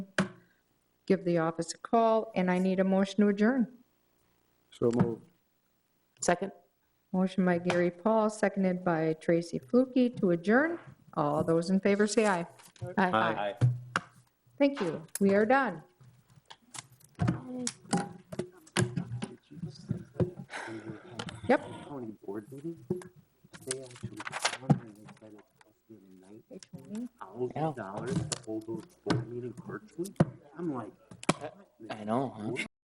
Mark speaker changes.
Speaker 1: give the office a call, and I need a motion to adjourn.
Speaker 2: So moved.
Speaker 3: Second?
Speaker 1: Motion by Gary Paul, seconded by Tracy Flukie to adjourn. All those in favor say aye.
Speaker 3: Aye.
Speaker 1: Thank you. We are done. Yep.
Speaker 4: county board meeting, they actually honored and they spent a night, thousands
Speaker 3: Yeah.
Speaker 4: of dollars to hold those board meeting virtually. I'm like,
Speaker 3: I know, huh?